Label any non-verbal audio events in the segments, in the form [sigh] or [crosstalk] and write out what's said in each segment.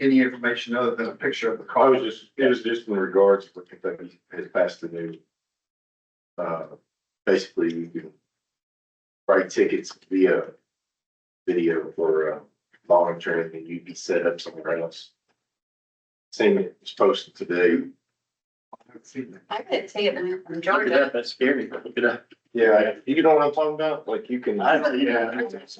any information other than a picture of the I was car. just, it was just in regards to what Kentucky has passed the new. Uh, basically, you can write tickets via video for uh, volume training, and you'd be set up somewhere else. Seen it, it's posted today. I couldn't see it in- Look from it Georgia. up, that's scary, look it up. Yeah, you know what I'm talking about? Like you can. I don't- Yeah.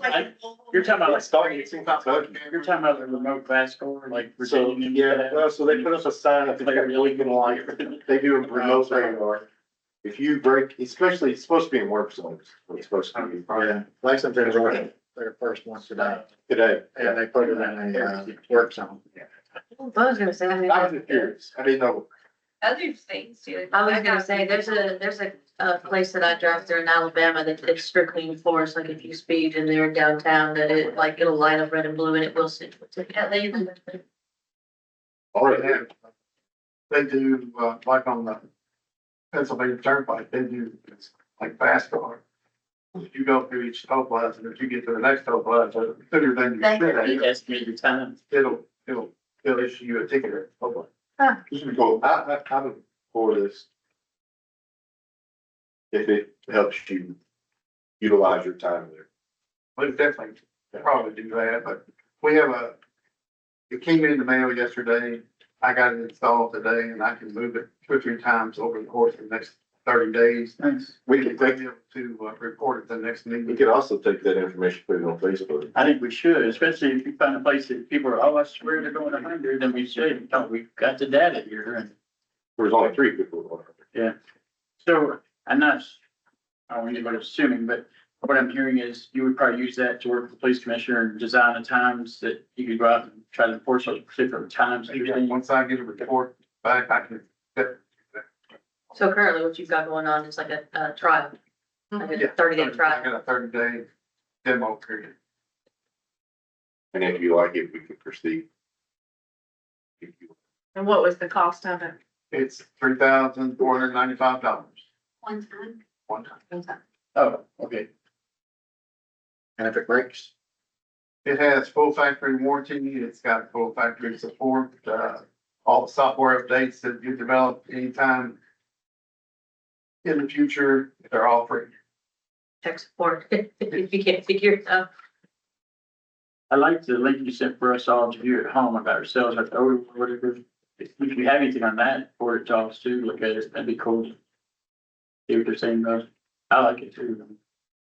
I- You're talking about like starting, It's in Kentucky. you're talking about the remote class score, like So, Virginia. and yeah, stuff. well, so they put up a sign at the Like, every really weekend light. [laughs] They do a remote radar. If you break, especially, it's supposed to be in work zones, it's supposed to be Yeah, license plate is running their first one today, today. and they put it in a uh, work zone. was gonna say. I was just curious, I didn't know. Other states do. I was gonna say, there's a, there's a, a place that I drive through in Alabama that it's strictly enforced, like if you speed in there downtown, that it, like, it'll light up red and blue and it will send you a ticket. At least, Mm-hmm. All They right, have, they do, uh, like on the Pennsylvania Turnpike, they do, it's like fast car. You go through each toll plaza, and if you get to the next toll plaza, sooner than you They- should, He estimated time. it'll, it'll, it'll issue you a ticket or something. this would be cool. I, I, I'm for this. If it helps you utilize your time there. We definitely probably do that, but we have a, it came in the mail yesterday. I got it installed today and I can move it two or three times over the course of the next thirty days. Thanks. We We'll could be take, able to uh, report at the next we meeting. could also take that information, put it on Facebook. I think we should, especially if you find a place that people are, oh, I swear they're going a hundred, then we should, no, we've got the data here and. There's only three people. on it. So I'm not, I don't want anybody assuming, but what I'm hearing is you would probably use that to work with the police commissioner and design the times that you could go out and try to enforce those particular times. And Once I get a report back, I can, So currently what you've got going on is like a, a trial, like a Yeah. thirty day I trial. got a thirty day demo period. And if you like it, we could proceed. If you And what was the cost of it? It's three thousand four hundred ninety-five dollars one time. one time. Oh, okay. And if it breaks, It has full factory warranty, it's got full factory support, uh, all the software updates that you develop anytime in the future, they're all free. Check support, [laughs] if you can't figure it out. I like the link you sent for us all to view at home about ourselves, or whatever. If you have anything on that, for it to us too, look at it, that'd be cool. See what they're saying about, it. I like it too.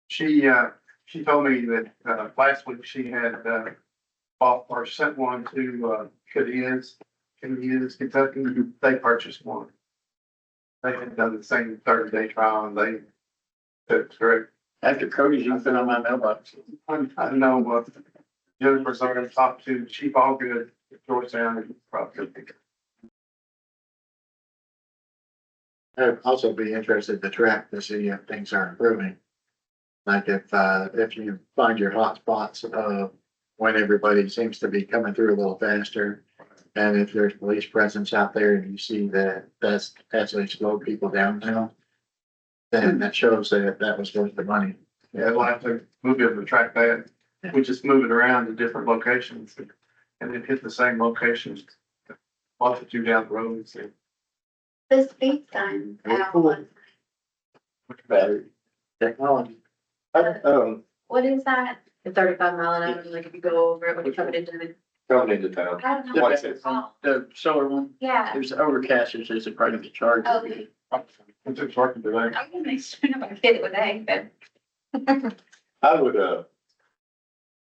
She, uh, she told me that, uh, last week she had, uh, bought or sent one to, uh, Cadiz, Cadiz, Kentucky, they purchased one. They had done the same thirty day trial and they, that's great. After Cody's, you put on my mailbox. I, I know, but Jennifer's already talked to Chief Allgood, Georgetown, and probably. I'd also be interested to track to see if things are improving. Like if, uh, if you find your hot spots of when everybody seems to be coming through a little faster. And if there's police presence out there and you see that that's actually slowed people down now. Then that shows that that was worth the money. Yeah, we'll have to, we'll be able to track that. We just move it around to different locations and then hit the same locations. Multitude down the road, so. The speed sign. out one time. Battery. Technology. I, um, What is that? At thirty-five mile an hour, like if you go over it when you're coming into the, coming into town, I don't know. What's what it? it's called. The solar one, Yeah. Oh, there's overcast, it's just a part of the charge. Okay. It's just working today. I'm gonna make sure I get it today, but. I would, uh.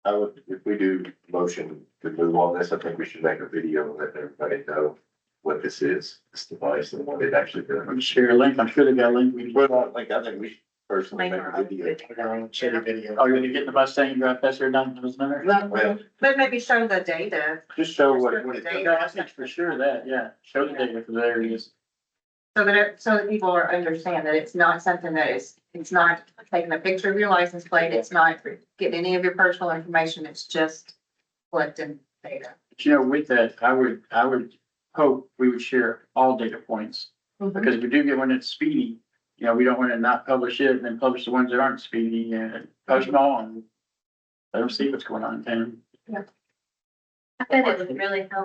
I would, if we do motion to move on this, I think we should make a video and let everybody know what this is, this device and what it actually does. I'm sure your link, I'm sure they got a link. we can- Well, like, I think we should personally make a video. Like our own city video. Are you gonna get in the Mustang and drive past there down to those numbers? Well, But maybe show the data, just show what, what it does. Yeah, I think for sure that, yeah, show the data for there it is. so that, it- so that people are understand that it's not something that is, it's not taking a picture of your license plate, it's not getting any of your personal information, it's just collecting data. But You know, with that, I would, I would hope we would share all data points. Because if we do get one that's speedy, you know, we don't wanna not publish it and then publish the ones that aren't speedy and post them all and let them see what's going on in town. I bet it would really help